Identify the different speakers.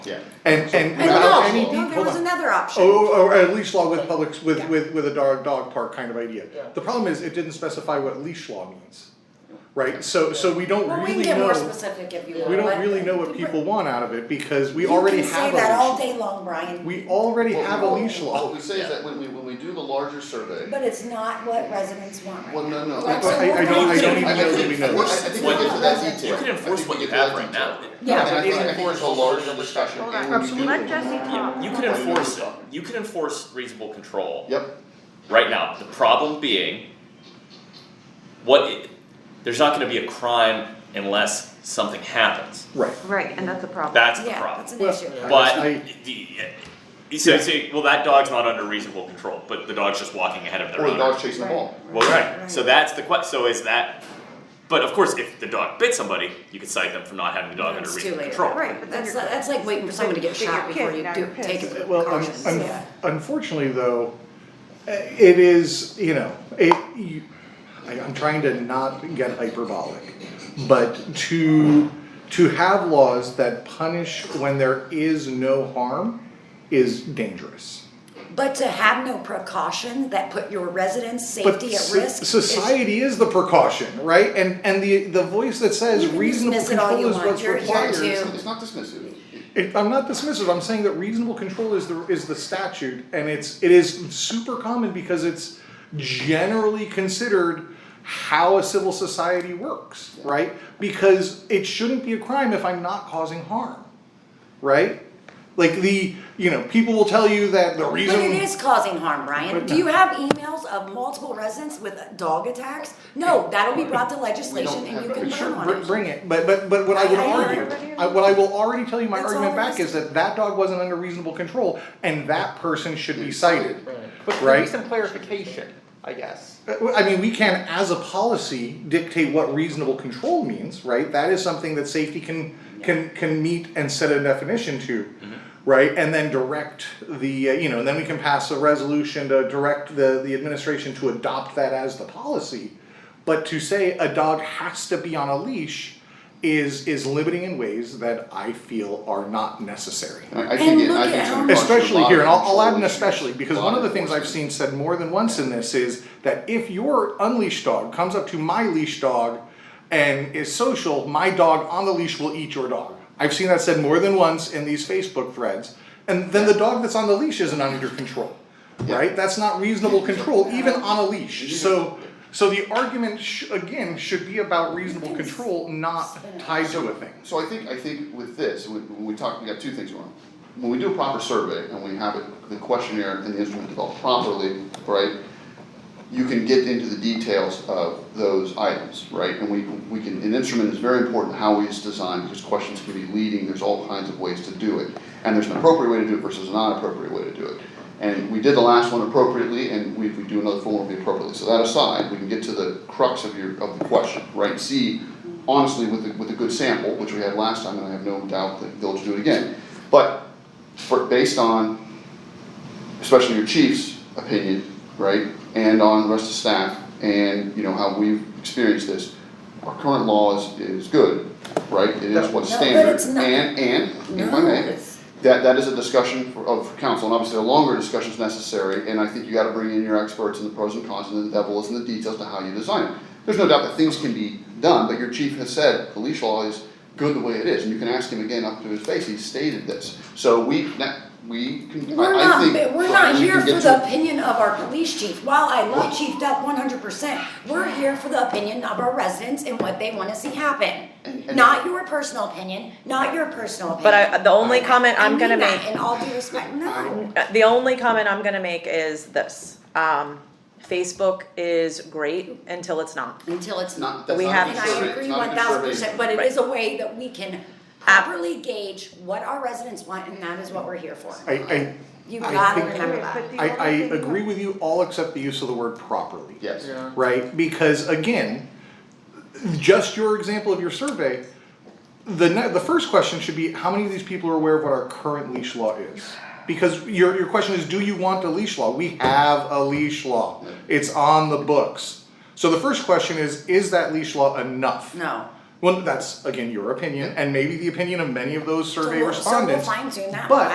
Speaker 1: Yeah.
Speaker 2: And, and
Speaker 3: I don't
Speaker 2: without
Speaker 3: know.
Speaker 2: any
Speaker 3: No,
Speaker 2: deed,
Speaker 3: there
Speaker 2: hold
Speaker 3: was
Speaker 2: on.
Speaker 3: another option.
Speaker 2: Or, or at leash law with public, with,
Speaker 3: Yeah.
Speaker 2: with, with a dog, dog park kind of idea.
Speaker 1: Yeah.
Speaker 2: The problem is, it didn't specify what leash law means, right? So, so we don't
Speaker 3: Well, we can
Speaker 2: really
Speaker 3: get
Speaker 2: know,
Speaker 3: more specific if you want.
Speaker 2: we
Speaker 3: but-
Speaker 2: don't really know what people want out of it, because we already
Speaker 3: You can
Speaker 2: have
Speaker 3: say that
Speaker 2: a
Speaker 3: all
Speaker 2: leash.
Speaker 3: day long, Brian,
Speaker 2: We already
Speaker 1: What we-
Speaker 2: have a leash
Speaker 1: What
Speaker 2: law.
Speaker 1: we say is that when we, when we do the larger survey,
Speaker 3: but it's not what residents want right
Speaker 1: Well, no,
Speaker 3: now.
Speaker 1: no.
Speaker 3: Like,
Speaker 2: I-
Speaker 3: so
Speaker 2: I- I
Speaker 3: we're
Speaker 2: don't-
Speaker 3: not
Speaker 2: I don't
Speaker 3: doing
Speaker 2: even
Speaker 1: I
Speaker 3: that.
Speaker 2: know
Speaker 1: think-
Speaker 2: that we know
Speaker 1: I
Speaker 2: this.
Speaker 1: think we get to that detail.
Speaker 4: You can enforce what you have right now.
Speaker 3: Yeah.
Speaker 1: And I think, I think
Speaker 4: Enforce
Speaker 1: it's a larger discussion, and when you do.
Speaker 5: Let Jesse
Speaker 4: You,
Speaker 5: talk.
Speaker 4: you can enforce it, you can enforce reasonable control.
Speaker 1: Yep,
Speaker 4: Right now, the problem being, what, i- there's not gonna be a crime unless something happens.
Speaker 2: Right.
Speaker 5: Right, and that's a problem.
Speaker 4: That's the
Speaker 3: Yeah, that's
Speaker 4: problem.
Speaker 3: an
Speaker 2: Well,
Speaker 3: issue.
Speaker 4: But,
Speaker 2: I-
Speaker 4: the, you say, you say, well, that dog's not under reasonable control, but the dog's just walking ahead of their
Speaker 1: or the
Speaker 4: owner.
Speaker 1: dog's chasing the ball.
Speaker 4: Well, right, so
Speaker 3: Right.
Speaker 4: that's the que, so is that, but of course, if the dog bit somebody, you could cite them for not having the dog under
Speaker 3: It's too
Speaker 4: reasonable
Speaker 3: late.
Speaker 4: control.
Speaker 5: Right, but then
Speaker 3: That's,
Speaker 5: you're-
Speaker 3: that's like waiting for someone to get
Speaker 5: Then you're
Speaker 3: shot before
Speaker 5: pissed,
Speaker 3: you
Speaker 5: now
Speaker 3: do,
Speaker 5: you're pissed.
Speaker 3: take it.
Speaker 2: Well, un-
Speaker 3: precautions,
Speaker 2: un-
Speaker 3: yeah.
Speaker 2: unfortunately, though, eh, it is you know it. You, I, I'm trying to not get hyperbolic, but to to have laws that punish when there is no harm is dangerous.
Speaker 3: But to have no precaution that put your residents'
Speaker 2: But
Speaker 3: safety at
Speaker 2: so-
Speaker 3: risk. is-
Speaker 2: society is the precaution, right? And and the the voice that says
Speaker 3: You can
Speaker 2: reasonable
Speaker 3: dismiss it all
Speaker 2: control
Speaker 3: you
Speaker 2: is
Speaker 3: want.
Speaker 2: what's
Speaker 3: You're here
Speaker 2: required.
Speaker 3: to-
Speaker 1: It's it's not dismissive.
Speaker 2: It, I'm not dismissive. I'm saying that reasonable control is the is the statute, and it's it is super common because it's generally considered how a civil society works, right? Because it shouldn't be a crime if I'm not causing harm, right? Like the you know people will tell you that the
Speaker 3: But
Speaker 2: reason
Speaker 3: it is causing harm, Brian.
Speaker 2: But
Speaker 3: Do you have emails of multiple residents with dog attacks? No, that'll be brought to legislation and you
Speaker 1: have that.
Speaker 3: can burn
Speaker 2: Sure,
Speaker 3: on
Speaker 2: br-
Speaker 3: it.
Speaker 2: bring it, but but but what I would
Speaker 3: I- I-
Speaker 2: argue, I- what I will already tell you, my
Speaker 3: That's
Speaker 2: argument
Speaker 3: all
Speaker 2: back
Speaker 3: there
Speaker 2: is
Speaker 3: is.
Speaker 2: that that dog wasn't under reasonable control, and that person should be cited,
Speaker 6: But can
Speaker 2: right?
Speaker 6: we some clarification, I guess.
Speaker 2: Uh, I mean, we can, as a policy, dictate what reasonable control means, right? That is something that safety can, can, can meet and set a definition to, right? And then direct the, uh, you know, and then we can pass a resolution to direct the, the administration to adopt that as the policy. But to say a dog has to be on a leash is, is limiting in ways that I feel are not necessary.
Speaker 1: I I think, it- I
Speaker 3: look
Speaker 1: think
Speaker 3: at
Speaker 1: some
Speaker 3: how
Speaker 1: of
Speaker 3: much-
Speaker 1: the
Speaker 2: Especially
Speaker 1: law
Speaker 2: here, and I'll, I'll
Speaker 1: control
Speaker 2: add an
Speaker 1: issues,
Speaker 2: especially, because
Speaker 1: law
Speaker 2: one of the things I've
Speaker 1: enforcement.
Speaker 2: seen said more than once in this is that if your unleashed dog comes up to my leash dog and is social, my dog on the leash will eat your dog. I've seen that said more than once in these Facebook threads, and then the dog that's on the leash isn't under control, right? That's not reasonable control, even on a leash, so, so the argument sh- again should be about reasonable control, not tied to a thing.
Speaker 1: So I think, I think with this, when when we talk, we got two things going on. When we do a proper survey and we have it, the questionnaire and the instrument developed properly, right? You can get into the details of those items, right? And we, we can, an instrument is very important, how it's designed, because questions can be leading, there's all kinds of ways to do it. And there's an appropriate way to do it versus a non-appropriate way to do it. And we did the last one appropriately, and we, if we do another full one, it'll be appropriately. So that aside, we can get to the crux of your, of the question, right? See, honestly, with, the- with a good sample, which we had last time, and I have no doubt that they'll do it again. But, for, based on especially your chief's opinion, right, and on the rest of staff, and, you know, how we've experienced this, our current law is, is good, right, it is what's
Speaker 3: No, but
Speaker 1: standard,
Speaker 3: it's not.
Speaker 1: and, and, if I
Speaker 3: No,
Speaker 1: may,
Speaker 3: it's-
Speaker 1: that, that is a discussion for, of council, and obviously a longer discussion is necessary, and I think you gotta bring in your experts and the pros and cons, and the devil is in the details to how you design it. There's no doubt that things can be done, but your chief has said, the leash law is good the way it is, and you can ask him again up to his face, he stated this, so we, that, we can
Speaker 3: We're
Speaker 1: I- I
Speaker 3: not,
Speaker 1: think-
Speaker 3: but we're
Speaker 1: but
Speaker 3: not
Speaker 1: we
Speaker 3: here
Speaker 1: can get
Speaker 3: for
Speaker 1: to-
Speaker 3: the opinion of our police chief, while I love Chief Duck one hundred percent, we're here for the opinion of our residents and what they wanna see happen.
Speaker 1: And- and-
Speaker 3: Not your personal opinion, not your personal opinion.
Speaker 7: But I, the only comment
Speaker 3: I
Speaker 7: I'm
Speaker 3: mean
Speaker 7: gonna
Speaker 3: that
Speaker 7: make,
Speaker 3: In all due respect, no,
Speaker 7: uh, the only comment I'm gonna make is this. Um, Facebook is great until it's not.
Speaker 3: until it's
Speaker 1: Not,
Speaker 3: not.
Speaker 1: that's
Speaker 7: We
Speaker 1: not a
Speaker 7: have-
Speaker 1: good
Speaker 3: And I
Speaker 1: survey. It's
Speaker 3: agree
Speaker 1: not a
Speaker 3: one
Speaker 1: good
Speaker 3: thousand
Speaker 1: survey.
Speaker 3: percent, but it
Speaker 7: Right.
Speaker 3: is a way that we can properly gauge what our residents want and that is what we're here for.
Speaker 2: I, I,
Speaker 3: You
Speaker 2: I
Speaker 3: gotta
Speaker 2: think-
Speaker 3: remember that.
Speaker 2: I, I agree with you all except the use of the word properly.
Speaker 1: Yes.
Speaker 2: right? Because again, just your example of your survey, the ne- the first question should be how many of these people are aware of what our current leash law is? Because your your question is, do you want a leash law? We have a leash law. It's on the books. So the first question is, is that leash law enough?
Speaker 3: No,
Speaker 2: Well, that's again your opinion, and maybe the opinion of many of those
Speaker 3: So
Speaker 2: survey
Speaker 3: we'll- so we'll
Speaker 2: respondents.
Speaker 3: fine-tune that one.
Speaker 2: but